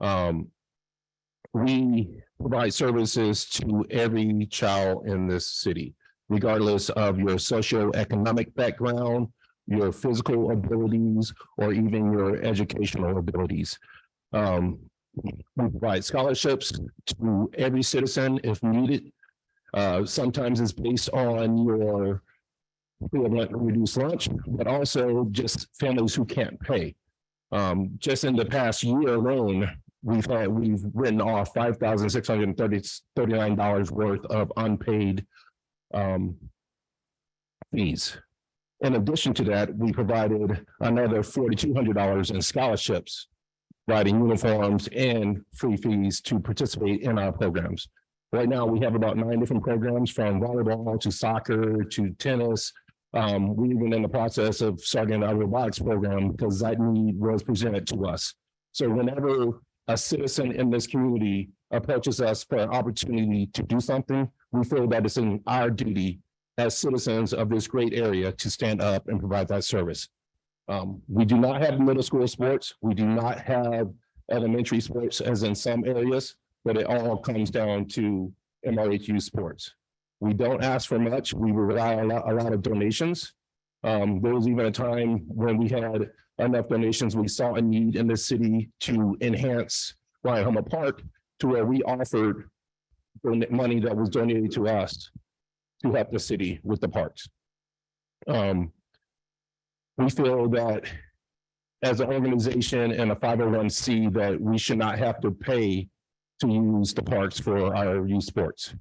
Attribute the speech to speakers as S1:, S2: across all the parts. S1: Um, we provide services to every child in this city, regardless of your socioeconomic background, your physical abilities, or even your educational abilities. Um, we provide scholarships to every citizen if needed. Uh, sometimes it's based on your equivalent reduced lunch, but also just families who can't pay. Um, just in the past year alone, we've had, we've written off five thousand six hundred and thirty, thirty-nine dollars worth of unpaid um fees. In addition to that, we provided another forty-two hundred dollars in scholarships, providing uniforms and free fees to participate in our programs. Right now, we have about nine different programs from volleyball to soccer to tennis. Um, we even in the process of starting our robotics program because that need was presented to us. So whenever a citizen in this community approaches us for an opportunity to do something, we feel that it's in our duty as citizens of this great area to stand up and provide that service. Um, we do not have middle school sports. We do not have elementary sports as in some areas, but it all comes down to MRHU sports. We don't ask for much. We rely on a lot, a lot of donations. Um, there was even a time when we had enough donations, we saw a need in the city to enhance Ryan Hummer Park to where we offered don- money that was donated to us to help the city with the parks. Um, we feel that as an organization and a five oh one C that we should not have to pay to use the parks for our youth sports.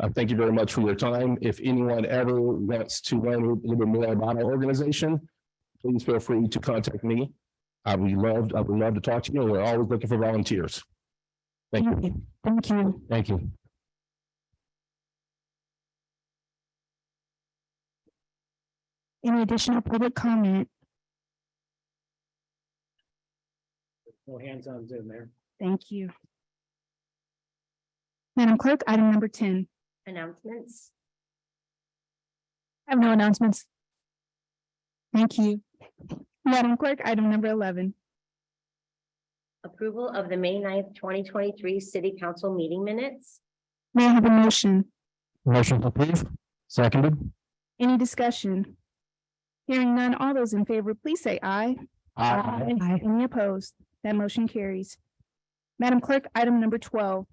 S1: I thank you very much for your time. If anyone ever wants to learn a little bit more about our organization, please feel free to contact me. I would love, I would love to talk to you. We're always looking for volunteers. Thank you.
S2: Thank you.
S1: Thank you.
S2: Any additional public comment?
S3: No hands on Zoom there.
S2: Thank you. Madam Clerk, item number ten.
S4: announcements.
S2: I have no announcements. Thank you. Madam Clerk, item number eleven.
S4: Approval of the May 9th, twenty twenty-three city council meeting minutes.
S2: May I have a motion?
S1: Motion to approve. Seconded.
S2: Any discussion? Hearing none, all those in favor, please say aye. Any opposed? That motion carries. Madam Clerk, item number twelve.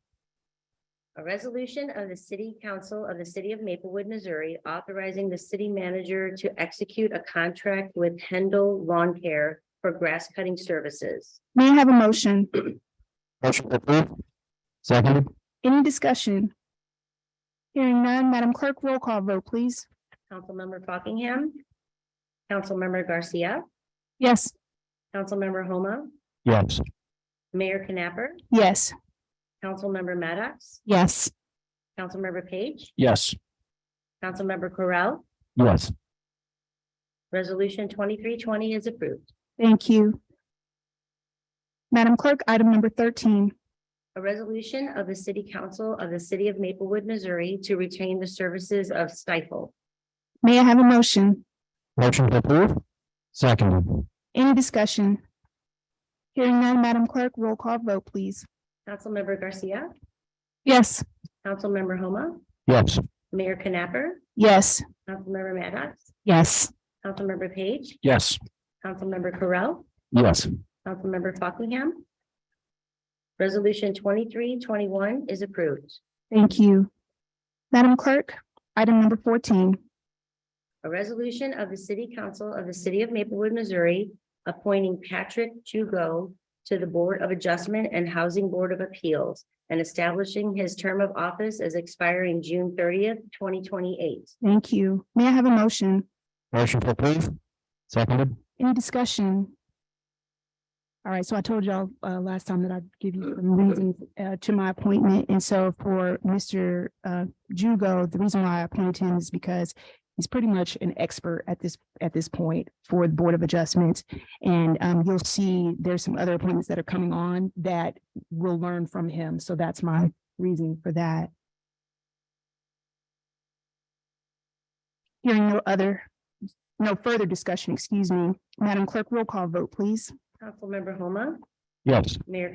S4: A resolution of the city council of the city of Maplewood, Missouri, authorizing the city manager to execute a contract with Hendel Lawn Care for grass cutting services.
S2: May I have a motion?
S1: Motion to approve. Seconded.
S2: Any discussion? Hearing none, Madam Clerk, roll call vote, please.
S4: Councilmember Buckingham. Councilmember Garcia,
S2: Yes.
S4: Councilmember Homa,
S1: Yes.
S4: Mayor Knapper,
S2: Yes.
S4: Councilmember Maddox,
S2: Yes.
S4: Councilmember Page,
S1: Yes.
S4: Councilmember Correll.
S1: Yes.
S4: Resolution twenty-three twenty is approved.
S2: Thank you. Madam Clerk, item number thirteen.
S4: A resolution of the City Council of the City of Maplewood, Missouri to retain the services of Stifle.
S2: May I have a motion?
S1: Motion to approve. Seconded.
S2: Any discussion? Hearing none, Madam Clerk, roll call vote, please.
S4: Councilmember Garcia,
S2: Yes.
S4: Councilmember Homa,
S1: Yes.
S4: Mayor Knapper,
S2: Yes.
S4: Councilmember Maddox,
S2: Yes.
S4: Councilmember Page,
S1: Yes.
S4: Councilmember Correll,
S1: Yes.
S4: Councilmember Buckingham. Resolution twenty-three twenty-one is approved.
S2: Thank you. Madam Clerk, item number fourteen.
S4: A resolution of the City Council of the City of Maplewood, Missouri, appointing Patrick Jugo to the Board of Adjustment and Housing Board of Appeals and establishing his term of office as expiring June thirtieth, twenty twenty-eight.
S2: Thank you. May I have a motion?
S1: Motion to approve. Seconded.
S2: Any discussion? All right, so I told y'all uh last time that I'd give you some reasons uh to my appointment, and so for Mr. uh Jugo, the reason why I appointed him is because he's pretty much an expert at this, at this point for the Board of Adjustments. And um you'll see there's some other appointments that are coming on that we'll learn from him, so that's my reason for that. Hearing no other, no further discussion, excuse me. Madam Clerk, roll call vote, please.
S4: Councilmember Homa,
S1: Yes.
S4: Mayor